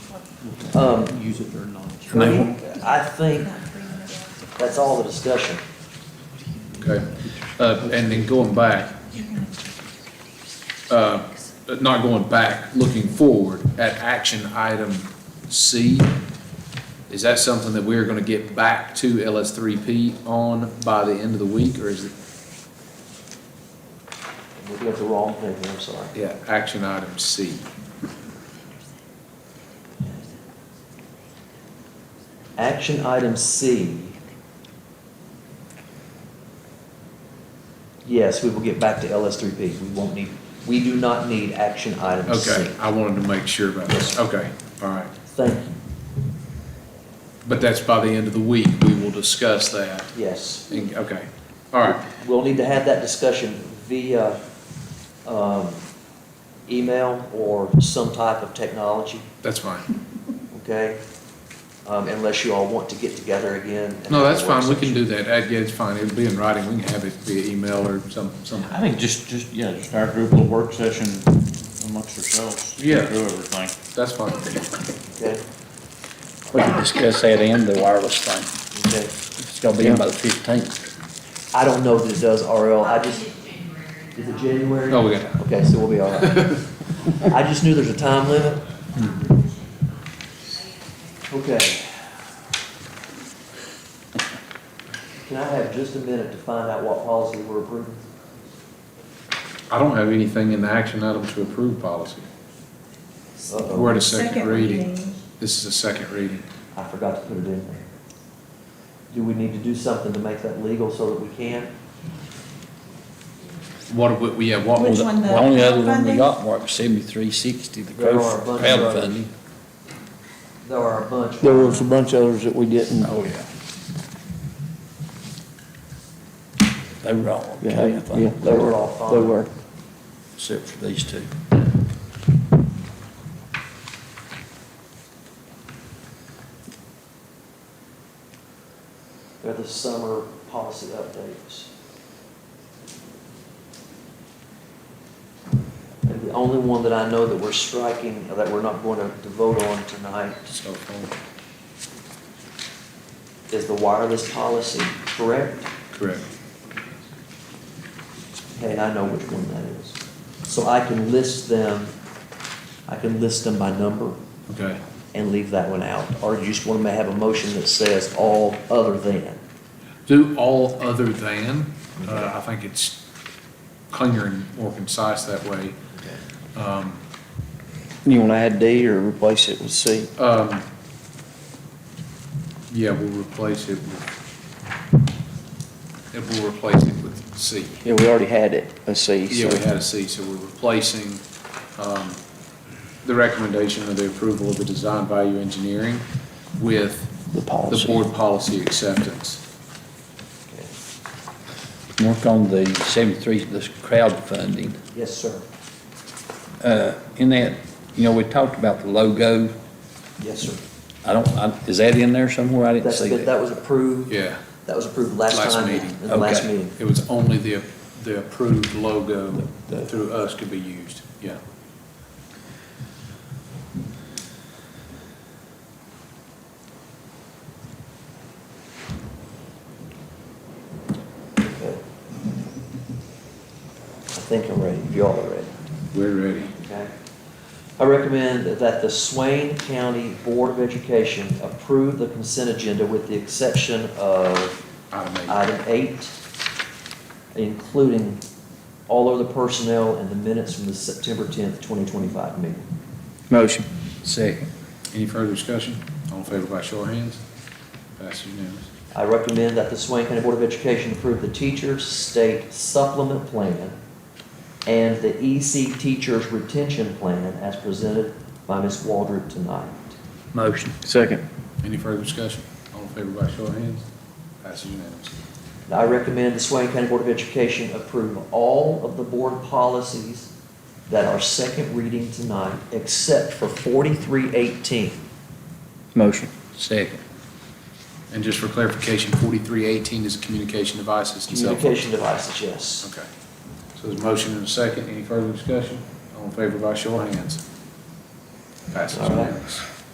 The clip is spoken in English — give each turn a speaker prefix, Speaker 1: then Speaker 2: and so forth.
Speaker 1: Um,
Speaker 2: Use it during lunch.
Speaker 1: I mean, I think that's all the discussion.
Speaker 3: Okay, uh, and then going back, uh, not going back, looking forward at action item C, is that something that we're gonna get back to LS3P on by the end of the week, or is it,
Speaker 1: I'm Looking at the wrong thing, I'm sorry.
Speaker 3: yeah, action item C?
Speaker 1: Action item C. Yes, we will get back to LS3P. We won't need, we do not need action item C.
Speaker 3: Okay, I wanted to make sure about this, okay, all right.
Speaker 1: Thank you,
Speaker 3: But that's by the end of the week, we will discuss that,
Speaker 1: yes.
Speaker 3: And- okay, all right,
Speaker 1: We'll need to have that discussion via um, email or some type of technology,
Speaker 3: that's fine.
Speaker 1: okay? Um, Unless you all want to get together again. and
Speaker 3: No,
Speaker 1: have a
Speaker 3: that's fine, we
Speaker 1: work
Speaker 3: can do that, Uh, yeah, it's fine, it'll be in writing, we can have it via email or some, some.
Speaker 2: I think just, just, yeah, just our group little work session amongst ourselves. go
Speaker 3: Yeah.
Speaker 2: Through everything.
Speaker 3: That's fine. Oh,
Speaker 1: session,
Speaker 4: We can discuss that and the wireless thing.
Speaker 1: Okay, okay.
Speaker 4: It's gonna be in by the fifteenth.
Speaker 1: I don't know that it does RL, I just, is it January?
Speaker 3: Oh, we got time.
Speaker 1: Okay, so we'll be all right. I just knew there's a time limit. Okay. Can I have just a minute to find out what policy we're approving?
Speaker 3: I don't have anything in the action item to approve policy.
Speaker 1: Uh-oh.
Speaker 3: We're at a second reading. This is a second reading.
Speaker 1: I forgot to put it in there. Do we need to do something to make that legal so that we can?
Speaker 3: What, we- we, yeah, what
Speaker 5: Which
Speaker 3: was,
Speaker 5: one? the
Speaker 4: The only other one we
Speaker 5: crowdfunding?
Speaker 4: got, Mark, was seventy-three sixty, the
Speaker 1: There are a bunch of others.
Speaker 4: crowdfunding.
Speaker 1: There are a bunch.
Speaker 6: There was a bunch of others that we didn't,
Speaker 4: Oh, yeah. They were all
Speaker 6: yeah,
Speaker 4: okay, I
Speaker 6: yeah,
Speaker 4: think,
Speaker 6: they were, they were.
Speaker 4: except for these two.
Speaker 1: They're the summer policy updates. And the only one that I know that we're striking, that we're not going to to vote on tonight,
Speaker 4: uh,
Speaker 3: cell phone.
Speaker 1: is the wireless policy, correct?
Speaker 3: Correct.
Speaker 1: Okay, I know which one that is. So I can list them, I can list them by number
Speaker 3: Okay.
Speaker 1: and leave that one out. Or you just want to have a motion that says all other than.
Speaker 3: Do all other than, uh, I think it's cleaner and more concise that way. Um,
Speaker 6: You wanna add D or replace it with C?
Speaker 3: um, yeah, we'll replace it with, it will replace it with C.
Speaker 6: Yeah, we already had it, a C,
Speaker 3: Yeah,
Speaker 6: so.
Speaker 3: we had a C, so we're replacing um, the recommendation of the approval of the design value engineering with
Speaker 6: The
Speaker 3: the
Speaker 6: policy.
Speaker 3: board policy acceptance.
Speaker 4: Mark, on the seventy-three, this crowdfunding,
Speaker 1: Yes, sir.
Speaker 4: uh, in that, you know, we talked about the logo.
Speaker 1: Yes, sir.
Speaker 4: I don't, I, is that in there somewhere? I didn't
Speaker 1: That's,
Speaker 4: see
Speaker 1: been-
Speaker 4: that.
Speaker 1: that was approved.
Speaker 3: Yeah,
Speaker 1: That was approved last
Speaker 3: Last
Speaker 1: time,
Speaker 3: meeting.
Speaker 1: in the last
Speaker 4: Okay.
Speaker 1: meeting.
Speaker 3: it was only the, the approved logo
Speaker 4: The- the-
Speaker 3: through us could be used, yeah.
Speaker 1: Okay. I think I'm ready, if y'all are ready,
Speaker 3: We're ready.
Speaker 1: okay? I recommend that the Swain County Board of Education approve the consent agenda with the exception of
Speaker 3: Item eight.
Speaker 1: item eight, including all of the personnel and the minutes from the September tenth, twenty twenty-five meeting.
Speaker 6: Motion.
Speaker 4: Second.
Speaker 3: Any further discussion? All in favor by show of hands? Passes unanimous.
Speaker 1: I recommend that the Swain County Board of Education approve the teacher's state supplement plan and the EC teacher's retention plan as presented by Ms. Waldrop tonight.
Speaker 4: Motion.
Speaker 6: Second.
Speaker 3: Any further discussion? All in favor by show of hands? Passes unanimous.
Speaker 1: And I recommend the Swain County Board of Education approve all of the board policies that are second reading tonight, except for 4318.
Speaker 6: Motion.
Speaker 4: Second.
Speaker 3: And just for clarification, forty-three eighteen is communication devices and cell phones.
Speaker 1: Communication devices, yes.
Speaker 3: Okay. So there's a motion and a second. Any further discussion? All in favor by show of hands. Passes
Speaker 1: All right.
Speaker 3: unanimous.